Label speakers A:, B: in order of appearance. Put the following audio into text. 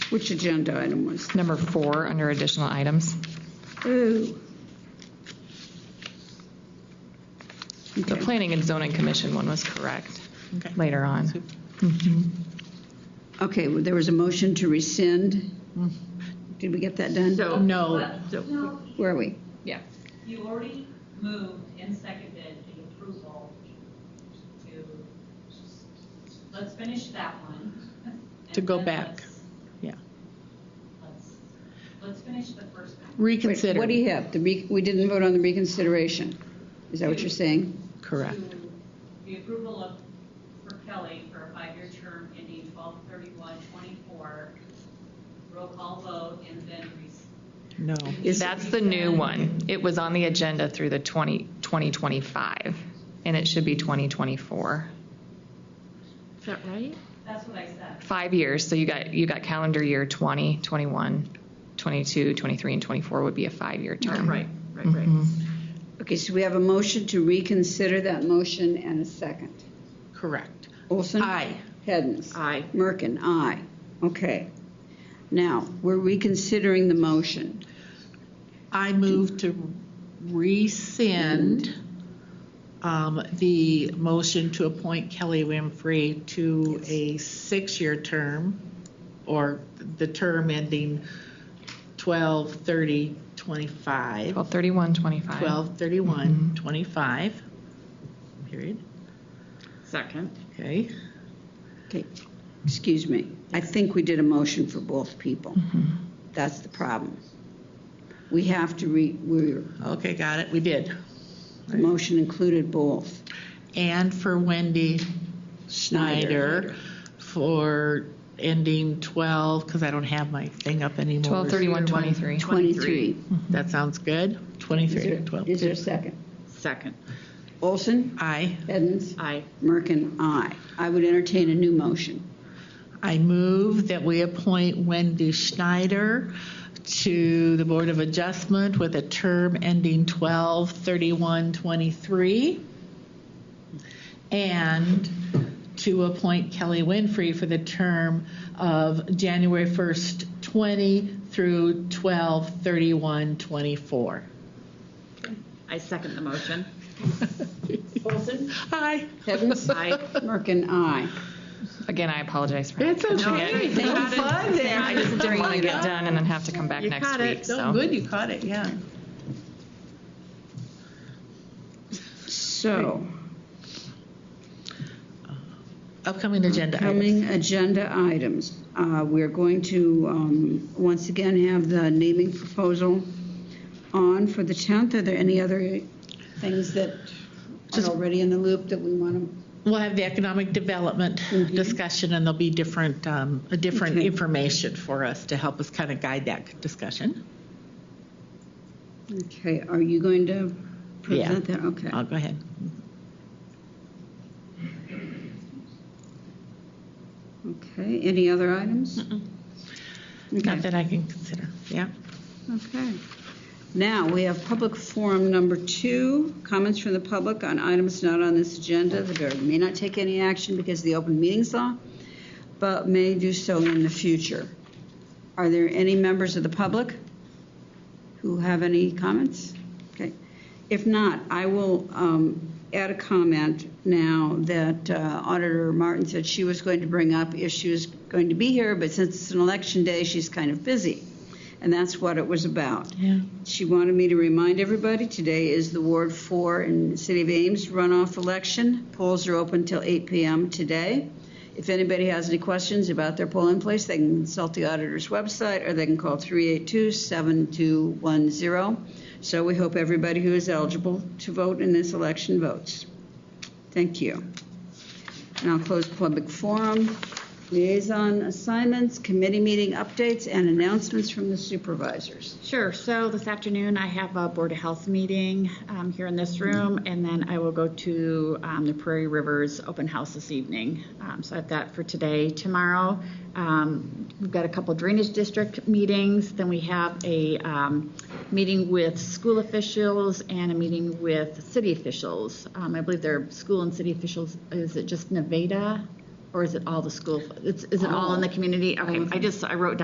A: Which agenda item was? that?
B: Number four, under additional items.
A: Ooh.
B: The
A: Okay.
B: Planning and Zoning Commission one was correct
C: Okay.
B: later on.
A: Okay, well, there was a motion to rescind. Did we get that done?
C: No.
D: No,
A: Where are we?
B: Yeah.
D: you already moved and seconded the approval to, let's finish that one. and
C: To go
D: then
C: back.
D: let's-
C: Yeah.
D: Let's, let's finish the first one.
C: Reconsider.
A: Wait, What do you have? The re- We didn't vote on the reconsideration. Is that what you're saying?
C: Correct.
D: To The approval of, for Kelly for a five-year term ending 12/31/24. roll call vote, and then res-
C: No.
B: That's the new one. It was on the agenda through the 20, 2025, and it should be 2024.
E: Is that right?
D: that's what I said.
B: Five years, so you got, you got calendar year 20, 21, 22, 23, and 24 would be a five-year term.
E: Right, right, right.
C: Mm-hmm.
A: Okay, so we have a motion to reconsider that motion and a second.
C: Correct.
A: Olson?
C: Aye.
A: Hens?
E: Aye.
A: Merkin? Aye. Okay. Now, we're reconsidering the motion.
C: I move to rescind um, the motion to appoint Kelly Winfrey to a six-year term, or the term ending 12/30/25.
B: 12, 31, 25.
E: Mm-hmm.
C: 12/31, 25, period,
E: Second.
C: okay?
A: Okay, excuse me. I think we did a motion for both people. That's the problem. We have to re, we're,
C: Okay, got it, we did.
A: the motion included both.
C: And for Wendy Schneider for ending 12, because I don't have my thing up anymore.
B: 12, 31, 23.
A: 23.
C: That sounds good.
A: Is
C: 23,
A: there-
C: 12.
A: Is there a second?
E: Second.
A: Olson?
C: I,
A: Hens?
E: Aye.
A: Merkin? Aye. I would entertain a new motion.
C: I move that we appoint Wendy Schneider to the Board of Adjustment with a term ending 12, 31, 23. And to appoint Kelly Winfrey for the term of January 1st, 20 through 12, 31, 24.
E: I second the motion.
A: Olson?
C: Aye.
A: Hens?
E: Aye.
A: Merkin? Aye.
B: Again, I apologize for.
C: It's okay.
B: Again,
C: No fun there.
B: I just didn't want to get done and then have to come back
C: You
B: next
C: caught
B: week,
C: it. No,
B: so.
C: good, you caught it, yeah.
A: So,
C: Upcoming agenda items.
A: coming agenda items. Uh, We're going to, um, once again, have the naming proposal on for the 10th. Are there any other things that are already in the loop that we want to?
C: We'll have the economic development discussion, and there'll be different, um, a different
A: Mm-hmm. Okay.
C: information for us to help us kind of guide that discussion.
A: Okay, are you going to
C: Yeah.
A: present that? Okay.
C: I'll go ahead.
A: Okay, any other items? Okay.
C: Not that I can consider, yeah.
A: Okay. Now, we have public forum number two, comments from the public on items not on this agenda. The board may not take any action because of the open meetings law, but may do so in the future. Are there any members of the public who have any comments? Okay. If not, I will um, add a comment now that uh, Auditor Martin said she was going to bring up if she was going to be here, but since it's an election day, she's kind of busy. And that's what it was about. She wanted me to remind everybody, today is the Ward 4 in the City of Ames runoff election. Polls are open till 8 p.m. today. If anybody has any questions about their poll in place, they can consult the auditor's website or they can call 382-7210. So we hope everybody who is eligible to vote in this election votes. Thank you. And I'll close public forum, liaison assignments, committee meeting updates, and announcements from the supervisors.
E: Sure. So this afternoon, I have a Board of Health meeting um, here in this room, and then I will go to um, the Prairie Rivers Open House this evening. Um, So I have that for today. Tomorrow, um, we've got a couple drainage district meetings, then we have a um, meeting with school officials and a meeting with city officials. Um, I believe they're school and city officials, is it just Nevada, or is it all the school? It's- Is it all in the community? Okay, I just, I wrote down.